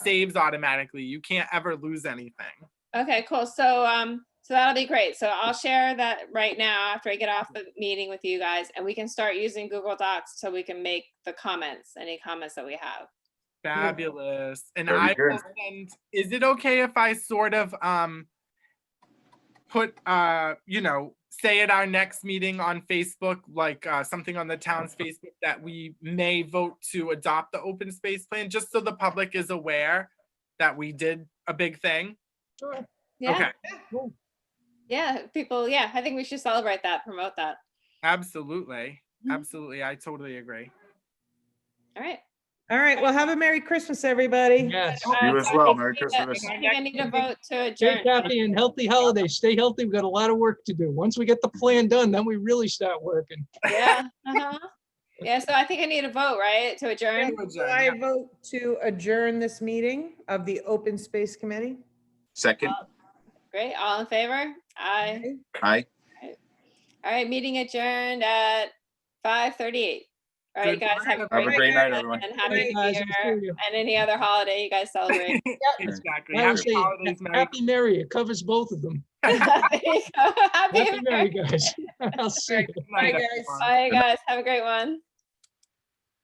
saves automatically. You can't ever lose anything. Okay, cool. So, um, so that'll be great. So I'll share that right now after I get off the meeting with you guys and we can start using Google Docs so we can make the comments, any comments that we have. Fabulous. And Very I will good. send, is it okay if I sort of um put uh, you know, say at our next meeting on Facebook, like uh something on the town's Facebook that we may vote to adopt the open space plan, just so the public is aware that we did a big thing? Yeah, Okay, yeah, people, yeah, I think we should celebrate that, promote that. absolutely. Mhm. Absolutely. I totally agree. All right. All right, well, have a Merry Christmas, everybody. Yes. Uh, You as so I well. think we Merry need to- Christmas. I think I need a vote to Stay adjourn. happy and healthy holidays. Stay healthy. We've got a lot of work to do. Once we get the plan done, then we really start working. Yeah, uh-huh. Yeah, so I think I need a vote, right, to adjourn? uh, So I vote to adjourn this meeting of the Open Space Committee. Second, Great, all in favor? Aye. Okay. aye. All right, meeting adjourned at five thirty-eight. All right, Good guys, have a work. Have a great great night, night everyone. and Thank happy you New guys. We'll Year see you. and any other holiday you guys celebrate. Exactly. Now we Happy say, holidays, Merry Happy Merry. It covers both of them. Happy Happy New Year. Merry, guys. I'll see you. night, guys. everyone. Bye, guys. Have a great one.